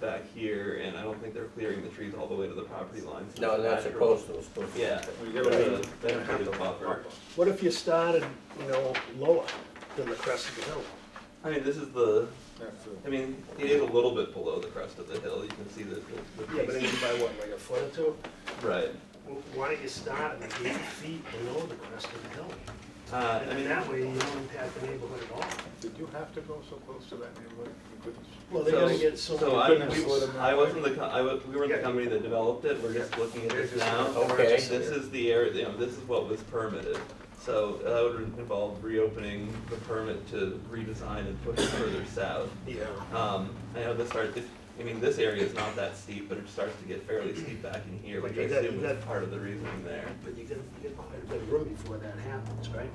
back here, and I don't think they're clearing the trees all the way to the property line. so No, it's that's a natural. coastal, it's coastal. Yeah, there's a, there's a buffer. What if you started, you know, lower than the crest of the hill? I mean, this is the, I mean, it is a little bit below the crest of the hill, you can see the, the- the. peaks. by what, like a foot or two? Right, Why don't you start at eight feet below the crest of the hill? uh, I And mean, that way you don't impact the neighborhood at all. Did you have to go so close to that neighborhood? You couldn't- Well, they're they're gonna gonna So- get get so I, goodness, what we, am I- I wasn't the, co- I was, we weren't the Yeah. company that developed it, we're just looking at this now. Okay. This is the area, you know, this is what was permitted, so that would involve reopening the permit to redesign and push it further south. Yeah. Um, I know this starts, I mean, this area is not that steep, but it starts to get fairly steep back in here, But which I you got- assume you is got- part of the reasoning there. But you get, you get quite a bit of room before that happens, right?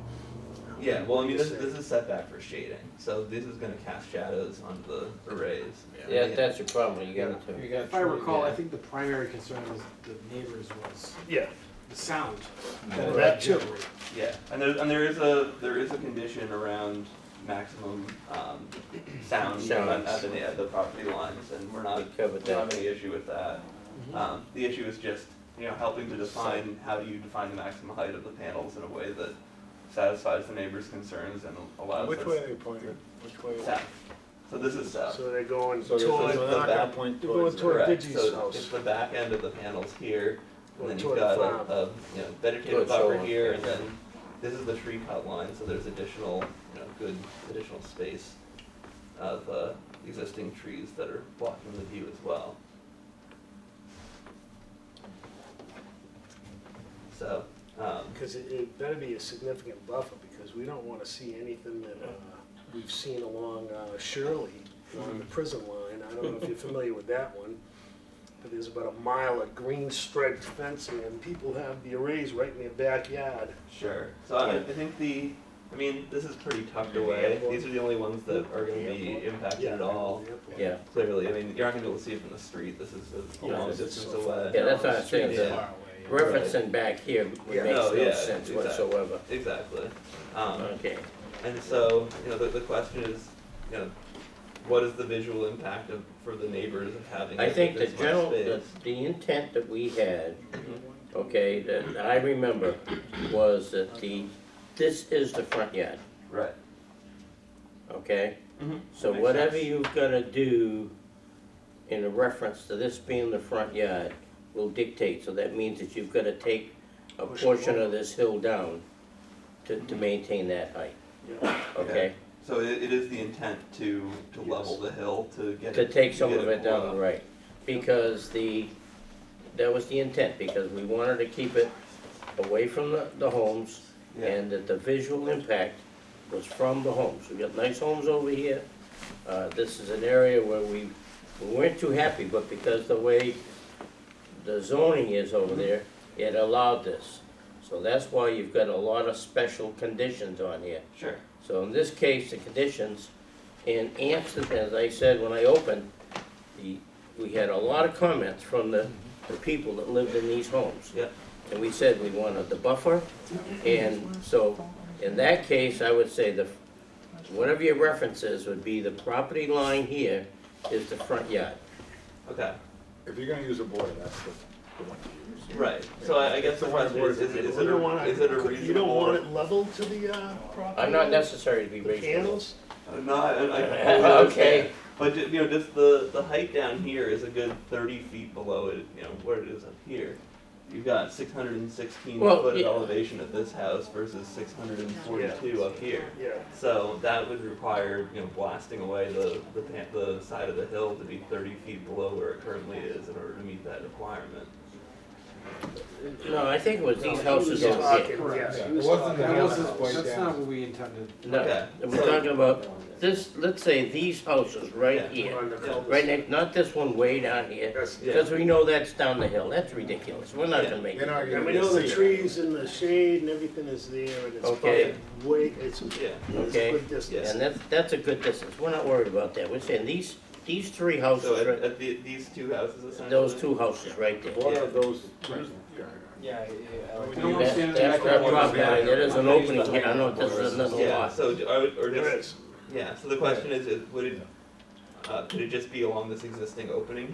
Yeah, well, I mean, this, this is setback for shading, so this is gonna cast shadows onto the arrays. Yeah, that's a problem, you got You to, got If I recall, I Yeah. think the primary concern was the neighbors was Yeah. the sound. Well, it that too. generated. Yeah, and there, and there is a, there is a condition around maximum, um, sound at, at the, at the property lines, and we're not, We covered we don't have that. any Mm-hmm. issue with that. Um, the issue is just, you know, helping to define, how do you define the maximum height of the panels in a way that satisfies the neighbor's concerns and allows us. Which way are they pointed? Which way? South. So this is south. So they're going So Toward you're toward, the not gonna back. point You're going towards. toward- that. Correct, Digi's so house. it's the back end of the panels here, and then you've Toward got the a, a, farm. you know, vegetative Toward buffer Solon, here, yeah. and then this is the tree cut line, so there's additional, you know, good additional space of, uh, existing trees that are blocking the view as well. So, um, because it, it better be a significant buffer, because we don't wanna see anything that, uh, we've seen along uh, Shirley, on the prison line, I don't know if you're familiar with that one. But there's about a mile of green striped fencing, and people have the arrays right in their backyard. Sure. So I, I think the, I mean, this is pretty tucked away. airport. These are the only ones that are gonna be impacted at all. yeah. Clearly, I mean, you're not gonna be able to see it from the street. This is a Yeah, long this is distance so far. away. Yeah, that's what I'm saying, Yeah. the referencing back here Yeah. would makes No, yeah, no sense exactly. whatsoever. Exactly. Um, Okay, and so, you know, the, the question is, you know, what is the visual impact of, for the neighbors of having? I it think the this much general, the, space? the intent that we had, Mm-hmm. okay, that I remember, was that the, this is the front yard, Right. okay? Mm-hmm. Mhm. So That makes whatever sense. you've gotta do in reference to this being the front yard will dictate, so that means that you've gotta take a Push it portion forward. of this hill down to, to maintain that height, Okay. okay? So it, it is the intent to, to level the hill, to get To it. take some get of it below. down, right, because the, that was the intent, because we wanted to keep it away from the, the homes, Yeah. and that the visual impact was from the homes. We got nice homes over here, uh, this is an area where we, we weren't too happy, but because the way the zoning is over there, it allowed this. So that's why you've got a lot of special conditions on here. Sure. So in this case, the conditions, in answer, as I said when I opened, the, we had a lot of comments from the, the people that lived in these homes. Yeah. And we said we wanted the buffer, and so, in that case, I would say the, whatever your reference is, would be the property line here is the front yard. Okay. If you're gonna use a border, that's the, the one to use. Right. So I, I guess the question is, is, it- is You it don't a, wanna- is it a reasonable? You don't want it leveled to the, uh, property? I'm not necessary to be The reasonable. panels? Uh, No, I, I- I completely understand. Okay, But ju- you know, just the the height down here is a good thirty feet below it. You know what it is up here. You've got six hundred and sixteen Well, foot of yeah. elevation at this house versus six hundred and forty-two up here. Yeah. So that would require you know blasting away the the pan- the side of the hill to be thirty feet below where it currently is in order to meet that requirement. no, I think it was these No, he houses was over here. talking, yes, he Yeah. was It wasn't talking the about- house. That wasn't- Way That's down. not what we intended. No, Okay, we're so- talking about this, let's say these houses Yeah. right here, On the Yeah. right cul-de-sac. next, not this one way down here, Yes. Yeah. because we know that's down the hill, that's ridiculous, we're not gonna make You're it. not And gonna we know the see it. trees and the shade and everything is there and it's Okay. probably way, it's, it's Yeah. a Okay. good distance. And that's, that's a good distance, we're not worried about that, we're saying these, these three So houses, at, right- at the, these two houses essentially. those two houses right there. Border of those. Yeah, No yeah. one's That, that's that drop down, there is an opening here, I know this is another Yeah. lot. So do- are, or just There is. Yeah, so the question is, is would it, Uh, could it just be along this existing opening